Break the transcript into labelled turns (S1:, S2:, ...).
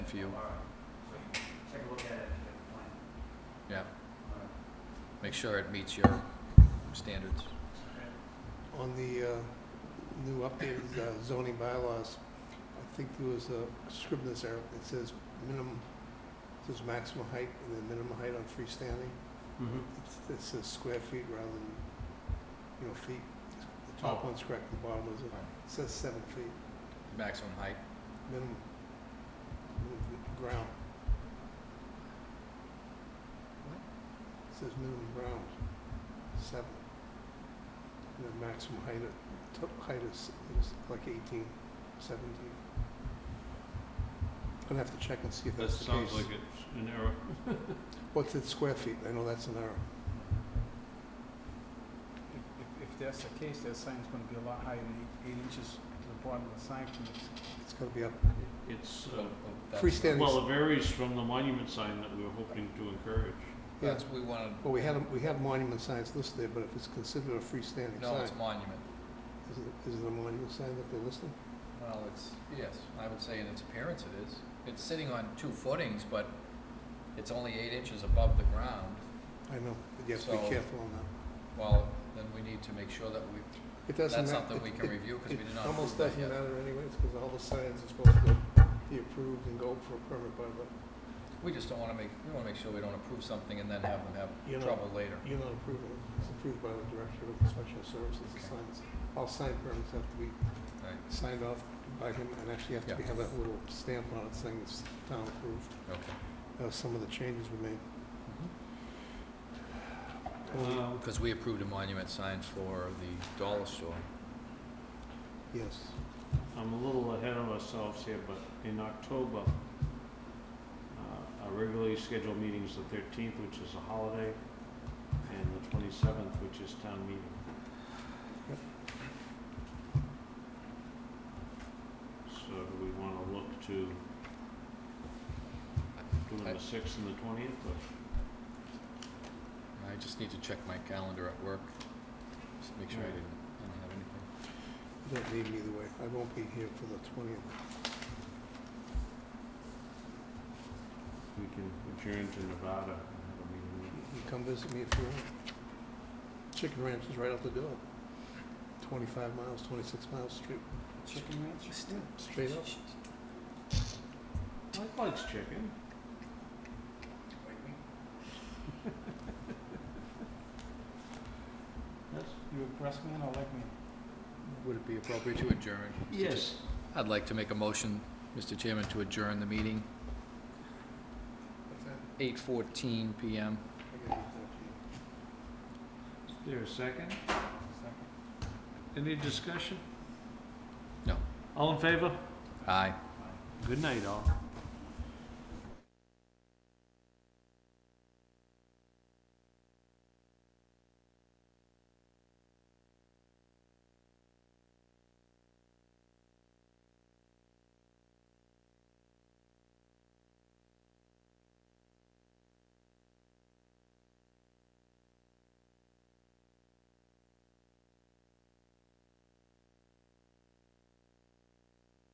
S1: for you.
S2: So you can take a look at it if you have a plan.
S1: Yeah,
S2: All right.
S1: make sure it meets your standards.
S2: Okay.
S3: On the uh, new updated uh, zoning bylaws, I think there was a scribbler's error. It says minimum, it says maximum height and then minimum height on freestanding. It's- It says square feet rather than, you know, feet. The top
S1: Oh.
S3: one's correct, the bottom was, it
S1: Right.
S3: says seven feet,
S1: Maximum height.
S3: minimum, minimum ground. It says minimum ground, seven. And the maximum height, of- top height is, is like eighteen, seventeen. I'd have to check and see if
S4: That
S3: that's the case.
S4: sounds like it's an error.
S3: What's it square feet? I know that's an error.
S5: If, if- if that's the case, that sign's gonna be a lot higher than eight- eight inches to the bottom of the sign from the
S3: It's gotta be up,
S4: It's,
S1: Oh,
S4: uh,
S1: oh, that's-
S3: Freestanding.
S4: well, it varies from the monument sign that we were hoping to encourage.
S3: yeah.
S1: That's, we wanted,
S3: Well, we had, a- we have monument signs listed there, but if it's considered a freestanding
S1: no,
S3: sign,
S1: it's monument.
S3: is it, is it a monument sign that they're listing?
S1: Well, it's, yes, I would say in its appearance it is. It's sitting on two footings, but it's only eight inches above the ground.
S3: I know, but you have to be
S1: So-
S3: careful on that.
S1: Well, then we need to make sure that we,
S3: It doesn't
S1: that's
S3: ma-
S1: something
S3: it-
S1: we can
S3: it-
S1: review, because we did not
S3: It almost
S1: approve that
S3: doesn't
S1: yet.
S3: matter anyways, because all the signs are supposed to be approved and go for a permit by the,
S1: We just don't wanna make, we wanna make sure we don't approve something and then have them
S3: You
S1: have
S3: know-
S1: trouble later.
S3: you're not approving it, it's approved by the Director of Inspection Services, the signs. All sign permits have to be
S1: Right,
S3: signed off by him, and actually have to be-
S1: Yeah.
S3: have that little stamp on it saying it's town approved.
S1: okay.
S3: That was some of the changes we made. Um,
S4: Um,
S1: Because we approved a monument sign for the dollar store.
S3: Yes.
S4: I'm a little ahead of ourselves here, but in October, uh, our regularly scheduled meeting is the thirteenth, which is a holiday, and the twenty-seventh, which is town meeting.
S3: Yep.
S4: So do we wanna look to doing the sixth and the twentieth, or
S1: I just need to check my calendar at work, just make sure I didn't, didn't have anything.
S3: You don't need me either way. I won't be here for the twentieth.
S4: we can adjourn to Nevada and have a meeting
S3: You
S4: then.
S3: can come visit me if you want. Chicken Ranch is right out the door. Twenty-five miles, twenty-six miles, straight,
S5: chicken ranch.
S3: straight up.
S4: Mike likes chicken.
S2: Wait, we-
S4: Yes?
S5: You a breast man or leg man?
S1: Would it be appropriate to adjourn?
S4: Yes.
S1: I'd like to make a motion, Mr. Chairman, to adjourn the meeting,
S3: What's that?
S1: eight fourteen PM.
S3: I gotta eat that, yeah.
S4: Is there a second?
S5: Second.
S4: Any discussion?
S1: No.
S4: All in favor?
S1: Aye.
S4: Good night, all.